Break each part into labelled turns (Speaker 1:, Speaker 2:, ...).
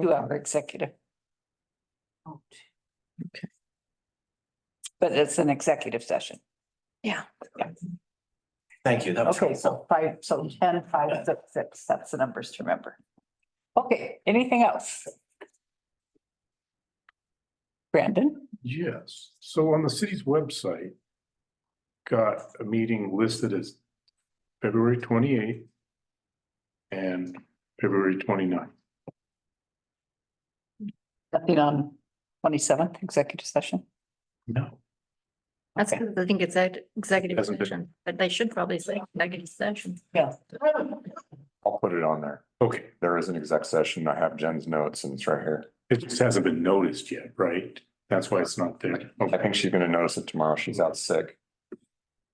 Speaker 1: two hour executive. Oh,
Speaker 2: Okay.
Speaker 1: But it's an executive session.
Speaker 3: Thank you. That was
Speaker 1: Okay,
Speaker 3: helpful.
Speaker 1: so five, so ten, five, six, six, that's the numbers to remember. Okay, anything else? Brandon?
Speaker 4: Yes, so on the city's website. Got a meeting listed as February twenty eighth. And February 29th.
Speaker 1: Nothing on twenty seventh executive session?
Speaker 4: No.
Speaker 5: That's
Speaker 1: Okay.
Speaker 5: because I think it's ex- executive
Speaker 4: Hasn't been-
Speaker 5: session, but they should probably say executive session.
Speaker 1: Yeah.
Speaker 6: I'll put it on there.
Speaker 4: Okay,
Speaker 6: There is an exec session. I have Jen's notes and it's right here.
Speaker 4: it just hasn't been noticed yet, right? That's why it's not there.
Speaker 6: I think she's gonna notice it tomorrow. She's out sick.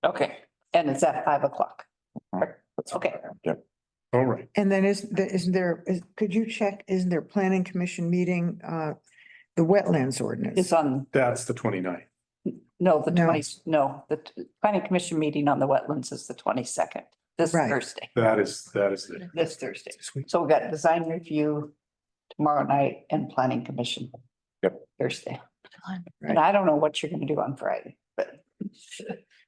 Speaker 1: Okay, and it's at five o'clock.
Speaker 6: That's
Speaker 1: Okay.
Speaker 6: Yep.
Speaker 4: All right,
Speaker 2: And then is, there- isn't there, is, could you check, isn't there planning commission meeting, uh, the wetlands
Speaker 1: It's
Speaker 2: ordinance?
Speaker 1: on,
Speaker 4: that's the 29th.
Speaker 1: no, the
Speaker 2: No.
Speaker 1: twenty, no, the t- planning commission meeting on the wetlands is the twenty second, this
Speaker 2: Right.
Speaker 1: Thursday,
Speaker 4: That is, that is the.
Speaker 1: this Thursday. So we got design review tomorrow night and planning commission.
Speaker 6: Yep.
Speaker 1: Thursday.
Speaker 5: Fun.
Speaker 1: And I don't know what you're gonna do on Friday, but.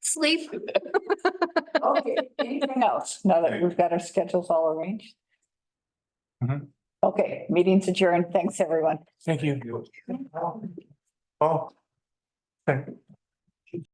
Speaker 5: Sleep.
Speaker 1: Okay, anything else, now that we've got our schedules all arranged?
Speaker 4: Mhm.
Speaker 1: Okay, meeting's adjourned, thanks, everyone.
Speaker 4: Thank you. Oh. Thank